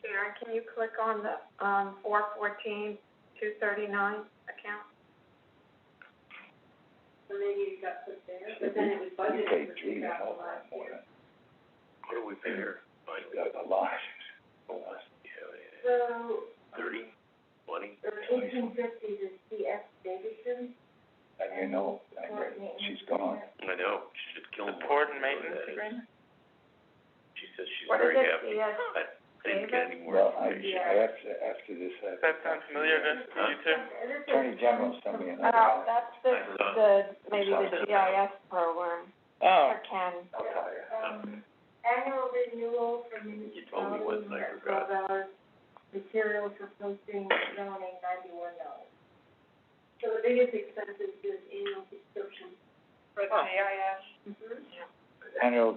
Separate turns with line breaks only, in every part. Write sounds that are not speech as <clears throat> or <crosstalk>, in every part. Karen, can you click on the, um, four fourteen, two thirty-nine account?
So maybe it got put there, but then it was budgeted for two thousand last year.
What do we uh, pay her?
A lot.
So,
Thirty, twenty?
the eighteen fifties is C F Davidson,
And you know, I mean, she's gone.
I know, she should kill more.
Support and maintenance agreement?
She says she's
What is
very
it,
happy.
CS?
I I didn't get any more
Well, I,
information.
I, after, after this happened.
Does that sound familiar to to you two?
Attorney General sent me another.
Oh, that's the,
I thought-
the, maybe
sorry.
the GIS program
Oh,
for Ken.
I'll tell you.
um, annual renewal for
told me once,
municipalities,
I
that's
forgot.
twelve dollars, materials for posting, zoning, ninety-one dollars. So the biggest expense is this annual subscription.
For the
AIS? Mm-hmm.
Annual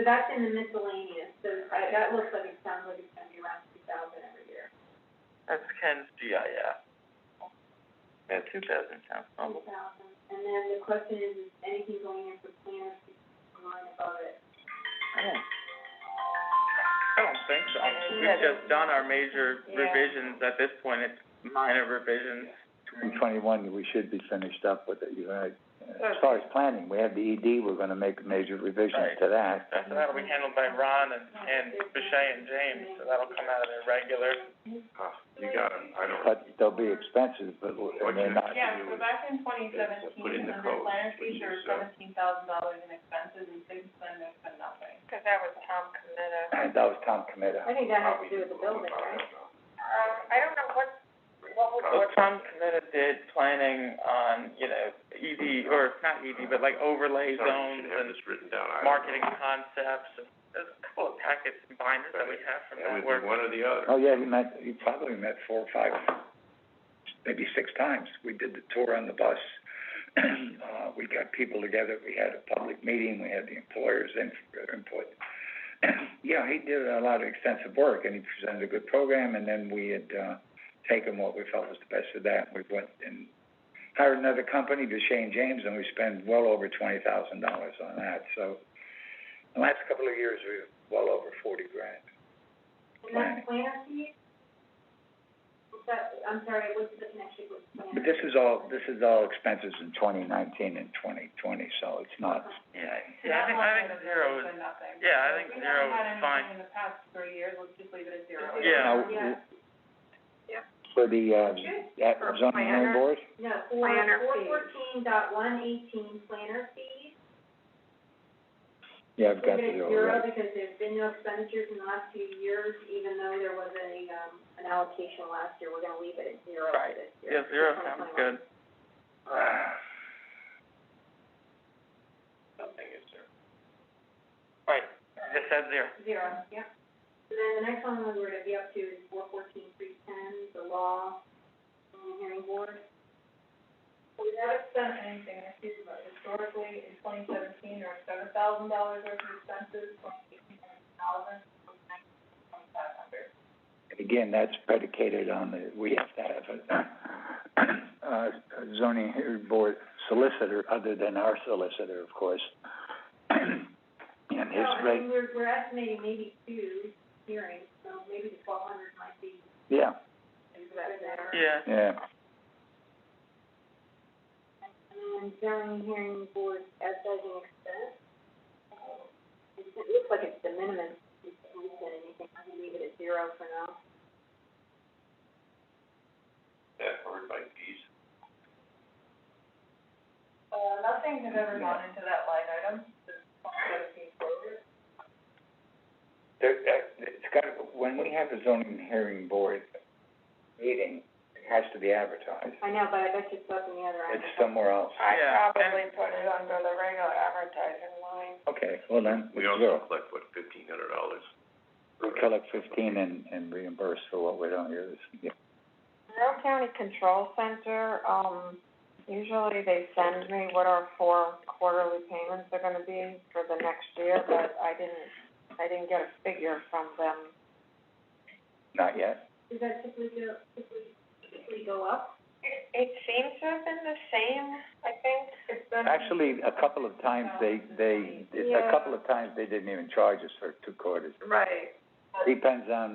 So that's in the miscellaneous, so I, that looks like it sounds like it's gonna be around two thousand every year.
that's Ken's GIF. Yeah, two thousand sounds normal.
Oh,
Two thousand, and then the question is, is anything going in for planners, is the line above it?
I don't, I don't think so.
I think
We've
that-
just done our major
Yeah.
revisions at this point, it's minor revisions.
twenty twenty-one, we should be finished up with it, you're right. As far as planning, we have the ED, we're gonna make major revisions to that.
So that'll be handled by Ron and, and Boucher and James, so that'll come out of their regular.
Huh, Ah, You got it, I don't.
But there'll be expenses, but, and they're not,
Yeah, so
back in twenty
Put in the code. There was
seventeen thousand dollars in expenses and six percent has been nothing. Cause that was Tom Cometa.
<clears throat> that was Tom
I
Cometa.
think that has to do with the building, right?
Um, I don't know what, what was
Well, Tom committed did planning on, you know, ED, or not ED, but like overlay
Sorry, you
zones
should have
and
this written down. I don't
marketing
know.
concepts, and there's a couple of packets and binders that we have from
It
that
would
work.
be one or the other.
Oh, yeah, he met, he probably met four or five, maybe six times. We did the tour on the bus. <clears throat> Uh, we got people together, we had a public meeting, we had the employers in, input. <clears throat> Yeah, he did a lot of extensive work and he presented a good program and then we had, uh, taken what we felt was the best of that. We went and hired another company, Deshae and James, and we spent well over twenty thousand dollars on that, so. The last couple of years, we were well over forty grand.
And that's planner fees? Is that, I'm sorry, what's the connection with planner?
But this is all, this is all expenses in twenty nineteen and twenty twenty, so it's not,
Yeah, yeah, I think, I think zero is, yeah, I think zero is fine.
in the past three years, let's just leave it at zero.
you
Yeah,
know,
Yeah.
Yeah.
for the, uh, that
For
zoning hearing
planner.
board,
No, four,
Planner
four
fees.
fourteen dot one eighteen, planner fees.
yeah, I've got to
Leave it
do
at
it
zero
right.
because there's been no expenditures in the last few years, even though there was a, um, an allocation last year, we're gonna leave it at zero for
Right.
this
yeah,
year.
zero sounds good.
Nothing is there.
Right, just said zero.
Zero, yeah. And then the next one we were gonna be up to is four fourteen, three ten, the law, um, hearing board.
We haven't spent anything this year, but historically, in twenty seventeen, there were seven thousand dollars worth of expenses, twenty eighteen, thousand, twenty-five hundred.
Again, that's predicated on the, we have to have a, uh, zoning hearing board solicitor other than our solicitor, of course. And his
Well, I
rate,
mean, we're, we're estimating maybe two hearings, so maybe the twelve hundred might be
yeah,
is that better.
Yeah,
yeah,
And then zoning um, hearing board advertising expense. It looks like it's de minimis, if we said anything, I can leave it at zero for now.
That covered by fees.
Uh, nothing has ever gone into that line item since twenty seventeen forward.
There, uh, it's got, when we have a zoning hearing board meeting, it has to be advertised.
I know, but I bet you it's up in the other end.
It's somewhere else.
Yeah, and-
put it under the regular advertising line.
Okay, well then,
We
zero.
also collect, what, fifteen hundred dollars?
We collect fifteen and, and reimburse for what we don't use. Yeah.
Monroe County Control Center, um, usually they send me what our four quarterly payments are gonna be for the next year, but I didn't, I didn't get a figure from them.
Not yet.
Does that typically go, typically, typically go up?
It, it seems to have been the same, I think. It's been.
Actually, a couple of times they, they, a couple of times they didn't even charge us for two quarters.
Right.
Depends on